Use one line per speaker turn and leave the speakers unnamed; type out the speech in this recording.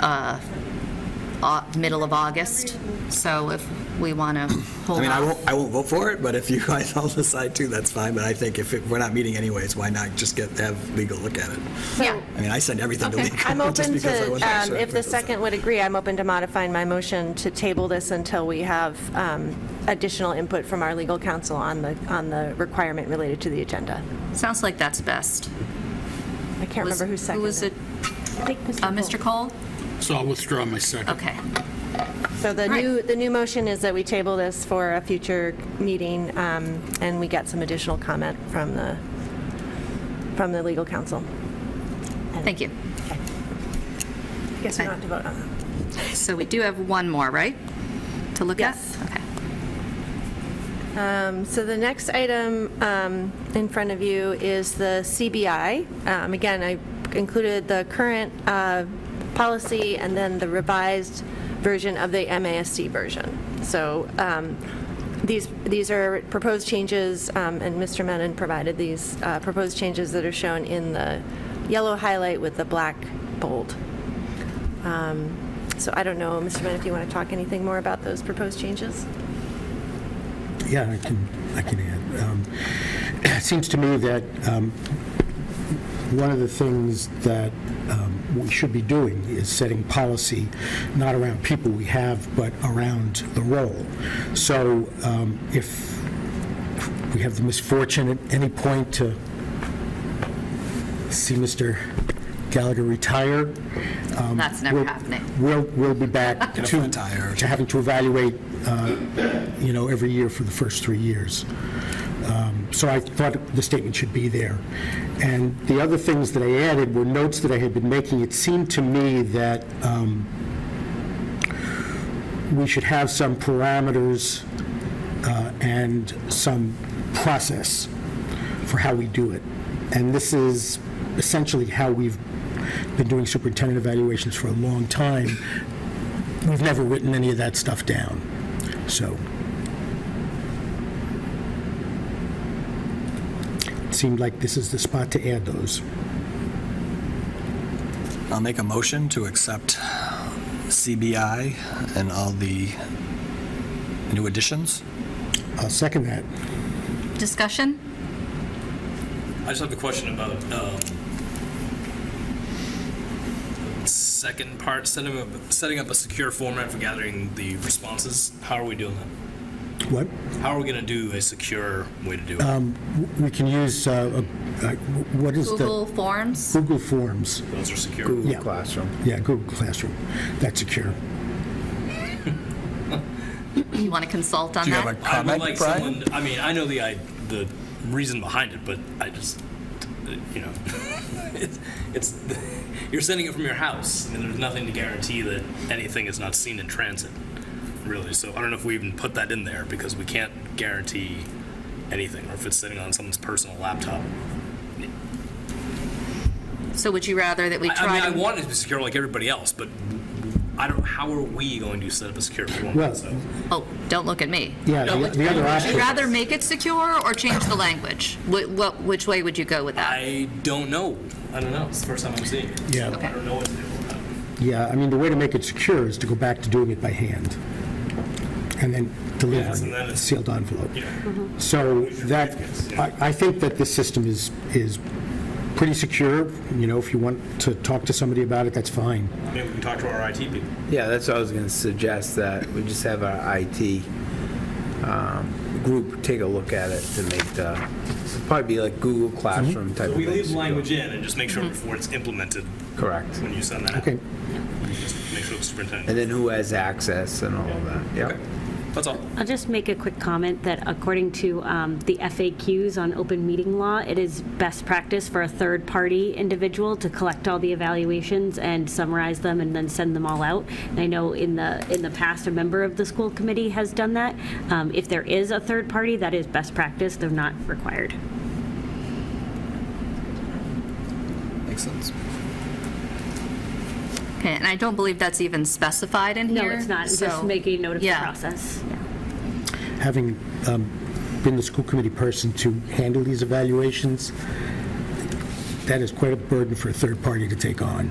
uh, au- middle of August, so if we want to
I
hold
mean, I
off.
won't, I won't vote for it, but if you guys all decide to, that's fine. But I think if it- we're not meeting anyways, why not just get, have legal look at it?
Yeah,
I mean, I send everything to
Okay.
legal.
I'm
just
open
because I
to,
wasn't
um,
sure
if the
it was-
second would agree, I'm open to modifying my motion to table this until we have um, additional input from our legal counsel on the, on the requirement related to the agenda.
sounds like that's best.
I can't
Was-
remember who
Who was
seconded
it?
it.
Uh, Mr. Cole?
So I'll withdraw my second.
Okay,
So the
Right.
new, the new motion is that we table this for a future meeting, um, and we get some additional comment from the, from the legal counsel.
thank you.
I guess we don't have to vote on that.
So we do have one more, right, to look at?
Yes.
Okay.
Um, So the next item um, in front of you is the CBI. Um, Again, I included the current uh, policy and then the revised version of the MASC version. So um, these, these are proposed changes, um, and Mr. Menon provided these uh, proposed changes that are shown in the yellow highlight with the black bold. Um, So I don't know, Mr. Menon, if you want to talk anything more about those proposed changes?
Yeah, I can, I can add. Um, It seems to me that um, one of the things that um, we should be doing is setting policy, not around people we have, but around the role. So um, if we have the misfortune at any point to see Mr. Gallagher retire, um,
That's never
we'll-
happening.
We'll, we'll be back
Get a
to
flat tire or
to having to evaluate, uh, you know, every year for the first three years. Um, So I thought the statement should be there. And the other things that I added were notes that I had been making. It seemed to me that um, we should have some parameters uh, and some process for how we do it. And this is essentially how we've been doing superintendent evaluations for a long time, we've never written any of that stuff down. So it seemed like this is the spot to add those.
I'll make a motion to accept CBI and all the new additions.
I'll second that.
Discussion?
I just have a question about um, second part setting up setting up a secure format for gathering the responses. How are we doing that?
What?
How are we going to do a secure way to do it?
We can use, uh, uh, what is
Google
the?
Forms?
Google Forms.
Those are secure.
Yeah. Classroom. Yeah, Google Classroom. That's secure.
You want to consult on
Do you have
that?
a
I would
comment,
like
Brian?
someone. I mean, I know the I, the reason behind it, but I just you know, it's, it's you're sending it from your house, and there's nothing to guarantee that anything is not seen in transit, really. So I don't know if we even put that in there because we can't guarantee anything, or if it's sitting on someone's personal laptop.
So would you rather that we
I, I
try
mean, I
to?
want it to be secure like everybody else, but I don't. How are we going to set up a secure format?
Well-
so
Oh, don't look at me.
Yeah, the the other
Would you
option,
rather make it secure or change the language? Wh- What, which way would you go with that?
I don't know. I don't know. It's the first time I'm seeing it.
Yeah.
So I don't know what to do. about it.
yeah, I mean, the way to make it secure is to go back to doing it by hand and then
Yes,
deliver
and then
it,
it's-
sealed envelope. So that, I, I think that this system is, is pretty secure. You know, if you want to talk to somebody about it, that's fine.
Maybe we can talk to our IT people.
Yeah, that's what I was going to suggest, that we just have our IT um, group take a look at it to make the, it'd probably be like Google Classroom type of
Mhm. We
thing.
leave language in and just make sure before it's implemented
Correct.
when you send that out.
Okay.
Just make sure the
And
superintendent.
then who has access and all of that, yeah.
That's all.
I'll just make a quick comment that according to um, the FAQs on open meeting law, it is best practice for a third-party individual to collect all the evaluations and summarize them and then send them all out. And I know in the, in the past, a member of the school committee has done that. Um, If there is a third party, that is best practice, though not required.
Makes sense.
Okay, and I don't believe that's even specified in
No,
here.
it's not,
so-
just making note of the
Yeah.
process. Yeah.
Having um, been the school committee person to handle these evaluations, that is quite a burden for a third party to take on.